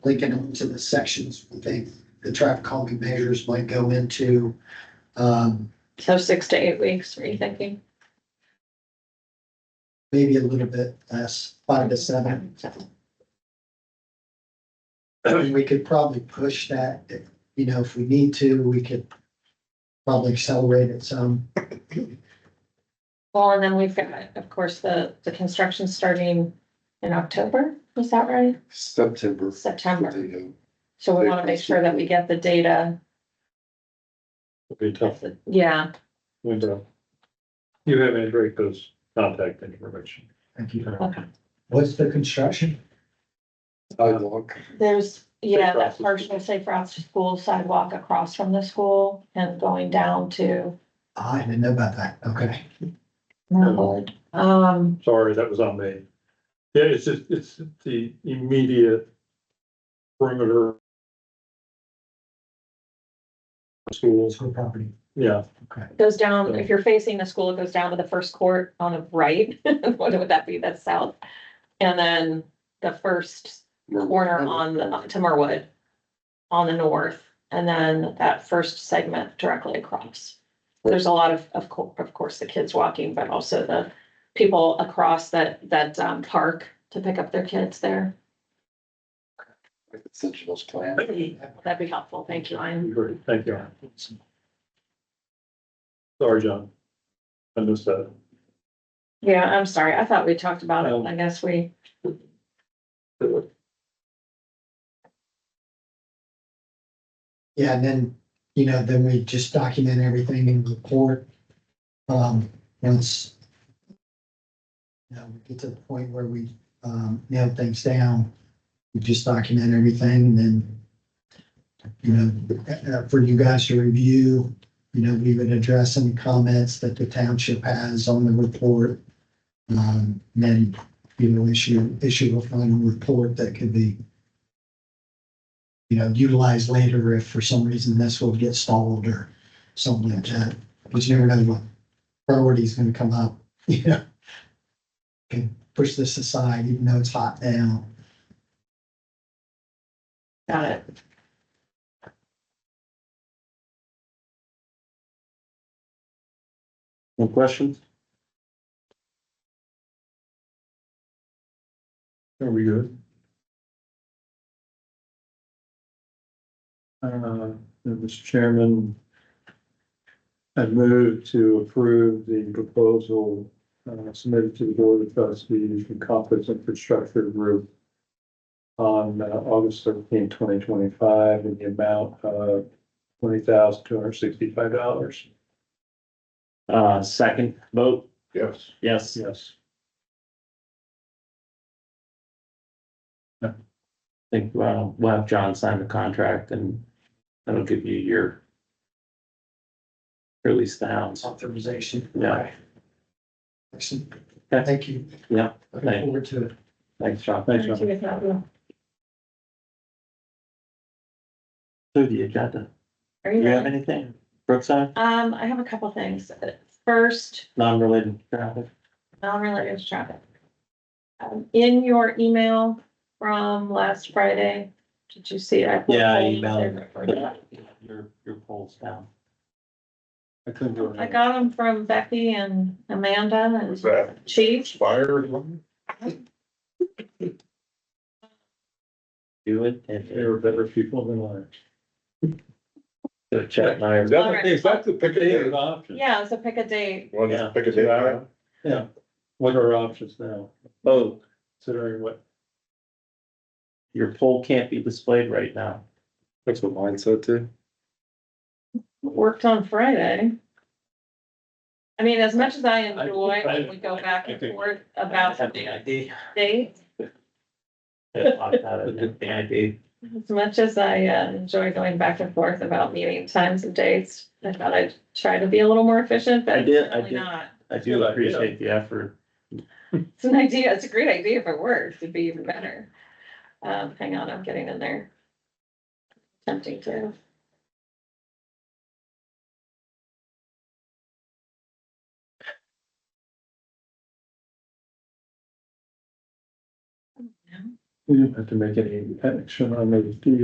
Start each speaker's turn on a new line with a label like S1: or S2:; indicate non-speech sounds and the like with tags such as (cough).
S1: linking them to the sections, we think the traffic calming measures might go into. Um,
S2: So six to eight weeks, are you thinking?
S1: maybe a little bit less, five to seven. (clears throat) And we could probably push that, if, you know, if we need to, we could probably accelerate it some.
S2: Well, and then we've got, of course, the, the construction starting in October, is that right?
S3: September.
S2: September.
S3: They, uh,
S2: So we want to make sure that we get the data.
S4: It'd be a tough
S2: Yeah,
S4: window. You have Andrew's contact information.
S1: Thank you.
S2: okay.
S1: What's the construction?
S3: Sidewalk.
S2: There's, yeah,
S4: Safe
S2: that
S4: routes to
S2: partial safe routes to school sidewalk across from the school and going down to.
S1: Ah, I didn't know about that. Okay.
S4: Mallard.
S2: Um,
S4: Sorry, that was on me. Yeah, it's just, it's the immediate perimeter. Schools,
S1: School property.
S4: yeah,
S2: goes down, if you're facing the school, it goes down to the first court on the right. (laughs) What would that be? That's south. And then the first corner on the, to Merwood on the north, and then that first segment directly across. There's a lot of, of course, of course, the kids walking, but also the people across that, that um, park to pick up their kids there.
S3: Essentials plan.
S2: That'd be helpful. Thank you, Ian.
S4: great, thank you. Sorry, John. I missed that.
S2: Yeah, I'm sorry. I thought we talked about it. I guess we,
S1: Yeah, and then, you know, then we just document everything in the report. Um, once. You know, we get to the point where we, um, nail things down, we just document everything and then. You know, uh, for you guys to review, you know, we would address any comments that the township has on the report. Um, and then, you know, issue, issue a final report that could be you know, utilize later if for some reason this will get stalled or something like that. But you never know what priority is gonna come up, (laughs) you know? Can push this aside even though it's hot now.
S2: got it.
S3: No questions?
S4: Are we good? Uh, Mr. Chairman, I move to approve the proposal uh, submitted to the Board of Trustees from Conflicts Infrastructure Group on uh, August 13, 2025, in the amount of twenty thousand two hundred sixty-five dollars.
S5: Uh, second vote,
S3: Yes.
S5: yes, I
S4: Yes.
S5: think, well, we'll have John sign the contract and that'll give you your or at least the hounds.
S1: Authorization.
S5: Yeah.
S1: Excellent.
S5: Okay.
S1: Thank you.
S5: Yeah,
S1: Looking forward to it.
S5: Thanks, John.
S4: Thanks, John.
S2: Are
S5: Through the agenda. Do
S2: you
S5: you have
S2: done?
S5: anything? Brookside,
S2: Um, I have a couple things. First,
S5: non-related traffic?
S2: non-related to traffic. Um, in your email from last Friday, did you see? I put
S5: Yeah, I
S2: polls
S5: emailed
S2: there for you.
S5: Your, your polls down.
S4: I couldn't do it.
S2: I got them from Becky and Amanda
S3: Was
S2: and
S3: that
S2: Chief.
S3: expired one?
S5: Do it and
S4: There were better people than I.
S5: so Chad and I are.
S2: Alright.
S4: That's that's the pick
S3: They had
S4: an option.
S2: Yeah, so pick a date.
S3: One
S5: Yeah.
S3: pick a
S4: Two
S3: date.
S4: hour. Yeah, what are our options now,
S5: Oh,
S4: considering what?
S5: your poll can't be displayed right now.
S3: That's what mine said too.
S2: Worked on Friday. I mean, as much as I enjoy when we go back and forth about
S5: Have the ID.
S2: dates,
S5: Yeah, lock that in, have The ID.
S2: as much as I uh, enjoy going back and forth about meeting times and dates, I thought I'd try to be a little more efficient, but
S5: I did- I
S2: apparently
S5: did.
S2: Not.
S5: I do
S4: Good idea.
S5: appreciate the effort.
S2: It's an idea, it's a great idea if it works, it'd be even better. Um, hang on, I'm getting in there. Tempting to.
S4: Mm-hmm.
S5: we didn't have to make any action on those deals.